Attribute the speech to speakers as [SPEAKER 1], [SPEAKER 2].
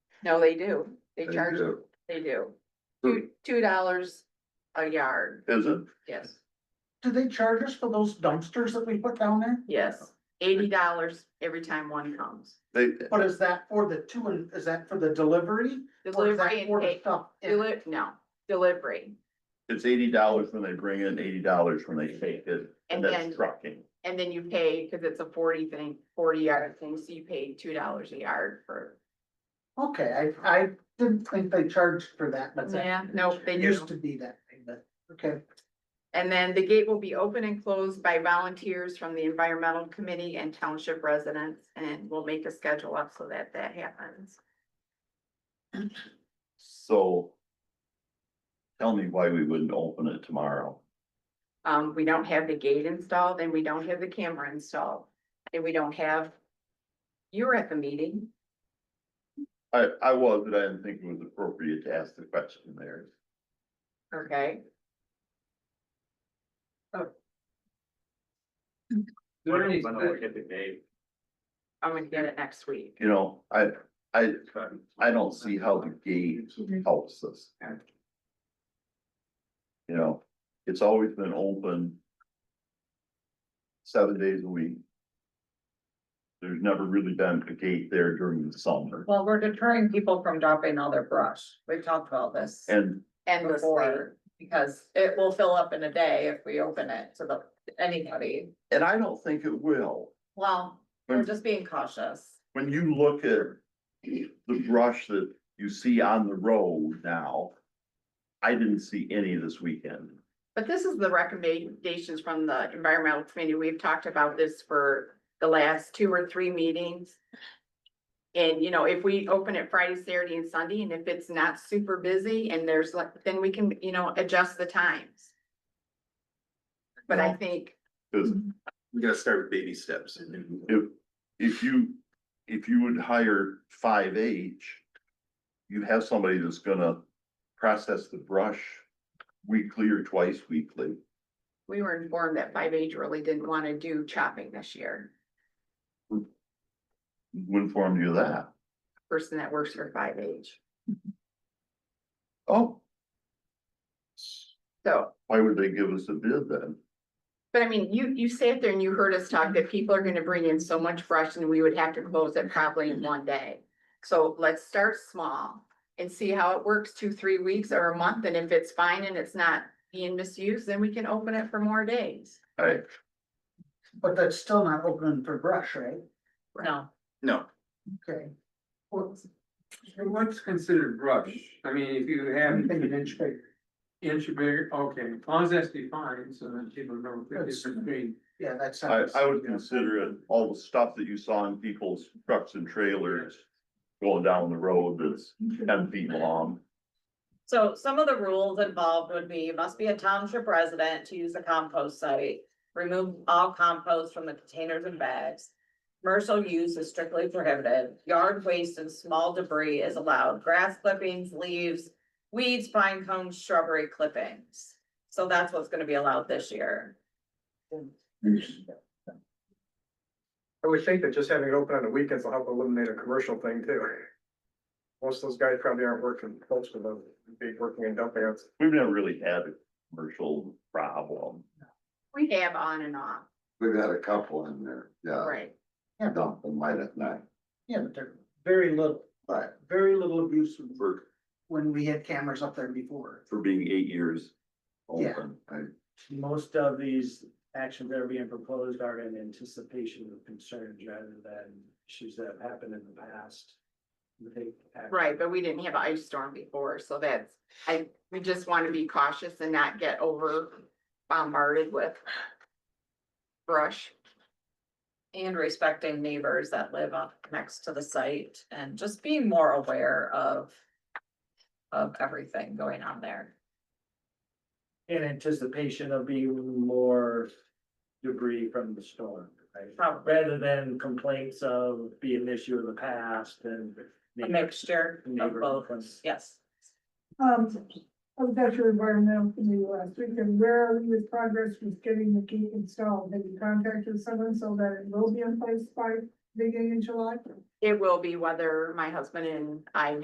[SPEAKER 1] No, they do. They
[SPEAKER 2] They
[SPEAKER 1] charge,
[SPEAKER 2] do.
[SPEAKER 1] they do.
[SPEAKER 2] Hmm.
[SPEAKER 1] Two, two dollars a yard,
[SPEAKER 2] Is it?
[SPEAKER 1] yes,
[SPEAKER 3] Do they charge us for those dumpsters that we put down there?
[SPEAKER 1] yes. Eighty dollars every time one comes.
[SPEAKER 2] They,
[SPEAKER 3] But is that for the two and, is that for the delivery? Or is that
[SPEAKER 1] Delivery
[SPEAKER 3] for
[SPEAKER 1] and
[SPEAKER 3] the
[SPEAKER 1] take,
[SPEAKER 3] Stuff. in?
[SPEAKER 1] deli, no, delivery.
[SPEAKER 2] it's eighty dollars when they bring in, eighty dollars when they take it, and
[SPEAKER 1] And
[SPEAKER 2] that's
[SPEAKER 1] then,
[SPEAKER 2] trucking.
[SPEAKER 1] and then you pay, cause it's a forty thing, forty yard thing, so you pay two dollars a yard for.
[SPEAKER 3] Okay, I, I didn't think they charged for that, but. that-
[SPEAKER 1] Yeah, no, they
[SPEAKER 3] It
[SPEAKER 1] do.
[SPEAKER 3] used to be that thing, but, okay.
[SPEAKER 1] And then the gate will be open and closed by volunteers from the environmental committee and township residents, and we'll make a schedule up so that that happens.
[SPEAKER 2] So. Tell me why we wouldn't open it tomorrow.
[SPEAKER 1] Um, we don't have the gate installed and we don't have the camera installed, and we don't have. You were at the meeting,
[SPEAKER 2] I, I was, but I didn't think it was appropriate to ask the question there.
[SPEAKER 1] okay?
[SPEAKER 4] When
[SPEAKER 5] When
[SPEAKER 4] that
[SPEAKER 5] is the-
[SPEAKER 4] can be made?
[SPEAKER 1] I'm gonna get it next week.
[SPEAKER 2] You know, I, I, I don't see how the gate
[SPEAKER 1] Mm-hmm.
[SPEAKER 2] helps us. You know, it's always been open. Seven days a week. There's never really been a gate there during the summer
[SPEAKER 5] Well, we're deterring people from dropping all their brush. We've talked about this
[SPEAKER 2] and
[SPEAKER 1] Endlessly,
[SPEAKER 5] before. Because it will fill up in a day if we open it to the, anybody.
[SPEAKER 2] And I don't think it will.
[SPEAKER 5] Well, we're just being cautious.
[SPEAKER 2] When you look at the brush that you see on the road now, I didn't see any this weekend.
[SPEAKER 1] but this is the recommendations from the environmental committee, we've talked about this for the last two or three meetings. And you know, if we open it Friday, Saturday and Sunday, and if it's not super busy and there's like, then we can, you know, adjust the times. But I think,
[SPEAKER 2] Cause
[SPEAKER 4] We gotta start with baby steps.
[SPEAKER 2] if, if you, if you would hire five H, you have somebody that's gonna process the brush weekly or twice weekly.
[SPEAKER 1] we were informed that five H really didn't wanna do chopping this year,
[SPEAKER 2] Who informed you of that?
[SPEAKER 1] person that works for five H,
[SPEAKER 2] Oh,
[SPEAKER 1] so.
[SPEAKER 2] why would they give us a bid then?
[SPEAKER 1] But I mean, you, you sat there and you heard us talk that people are gonna bring in so much brush and we would have to close it probably in one day. So let's start small and see how it works, two, three weeks or a month, and if it's fine and it's not being misused, then we can open it for more days.
[SPEAKER 2] I,
[SPEAKER 3] But that's still not open for brush, right?
[SPEAKER 5] No,
[SPEAKER 4] No,
[SPEAKER 3] Okay.
[SPEAKER 6] What's, what's considered brush? I mean, if you have
[SPEAKER 3] Anything an
[SPEAKER 6] an
[SPEAKER 3] inch bigger,
[SPEAKER 6] inch bigger, okay, as long as that's defined, so that people know the
[SPEAKER 3] That's-
[SPEAKER 6] difference between.
[SPEAKER 3] yeah, that
[SPEAKER 2] I,
[SPEAKER 3] sounds.
[SPEAKER 2] I would consider it all the stuff that you saw in people's trucks and trailers going down the road that's ten feet long.
[SPEAKER 5] so some of the rules involved would be, you must be a township resident to use the compost site. Remove all compost from the containers and bags. Commercial use is strictly prohibited. Yard waste and small debris is allowed. Grass clippings, leaves, weeds, pine cones, shrubbery clippings. So that's what's gonna be allowed this year.
[SPEAKER 7] I would think that just having it open on the weekends will help eliminate a commercial thing too. Most of those guys probably aren't working, most of them be working in dump yards.
[SPEAKER 2] We've never really had a commercial problem.
[SPEAKER 1] We have on and off,
[SPEAKER 8] We've had a couple in there,
[SPEAKER 2] Oh.
[SPEAKER 8] yeah,
[SPEAKER 1] right?
[SPEAKER 8] dump them light at night,
[SPEAKER 3] Yeah, but they're very little,
[SPEAKER 8] but
[SPEAKER 3] very little abuse of-
[SPEAKER 2] For,
[SPEAKER 3] when we had cameras up there before.
[SPEAKER 2] for being eight years
[SPEAKER 3] Yeah.
[SPEAKER 2] open.
[SPEAKER 9] Most of these actions that are being proposed are in anticipation of concerns rather than issues that have happened in the past. We take action.
[SPEAKER 1] Right, but we didn't have an ice storm before, so that's, I, we just wanna be cautious and not get over bombarded with brush.
[SPEAKER 5] And respecting neighbors that live on next to the site and just being more aware of. Of everything going on there.
[SPEAKER 9] In anticipation of being more debris from the storm, right?
[SPEAKER 5] Probably
[SPEAKER 9] Rather than complaints of being an issue in the past and.
[SPEAKER 5] a mixture of
[SPEAKER 9] Neighborhood
[SPEAKER 5] both,
[SPEAKER 9] complaints.
[SPEAKER 5] yes.
[SPEAKER 10] Um, I was at your environmental committee last week, and where are we with progress with getting the gate installed? Have you contacted someone so that it will be in place by beginning in July?
[SPEAKER 1] It will be whether my husband and I